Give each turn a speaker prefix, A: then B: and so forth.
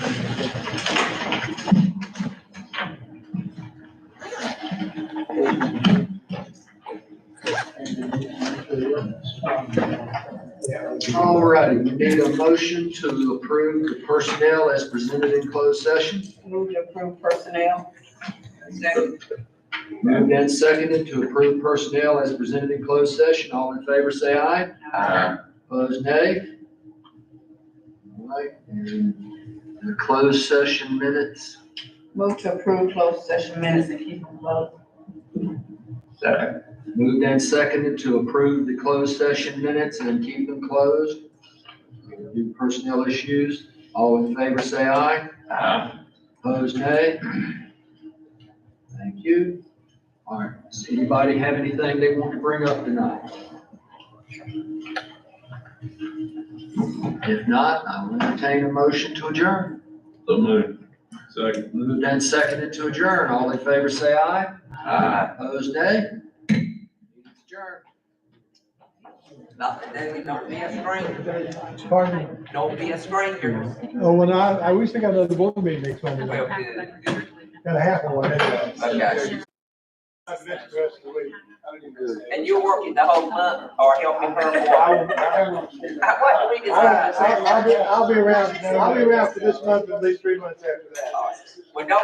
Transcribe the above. A: All righty, we need a motion to approve the personnel as presented in closed session.
B: Move to approve personnel. Second.
A: Moved and seconded to approve personnel as presented in closed session. All in favor, say aye. Opposed, nay. All right, and the closed session minutes.
B: Move to approve closed session minutes and keep them closed.
A: Second. Moved and seconded to approve the closed session minutes and keep them closed. Do personnel issues. All in favor, say aye. Opposed, nay. Thank you. All right, does anybody have anything they want to bring up tonight? If not, I will entertain a motion to adjourn.
C: So moved. Second.
A: Moved and seconded to adjourn. All in favor, say aye.
C: Aye.
A: Opposed, nay? Adjourn.
D: Nothing, Daily, don't be a stranger.
E: Pardon me.
D: Don't be a stranger.
E: Oh, when I, I wish I got another board meeting next Monday.
D: Well,
E: night.
D: good.
E: Gotta happen one anyway.
D: Okay.
E: I missed the rest of the week. I didn't miss it.
D: And you're working the whole month or helping her
E: I
D: more.
E: will- I will-
D: Uh, What we
E: I-
D: decide.
E: I'll, I'll be, I'll be around, I'll be around for this month, at least three months after that.
D: Well, don't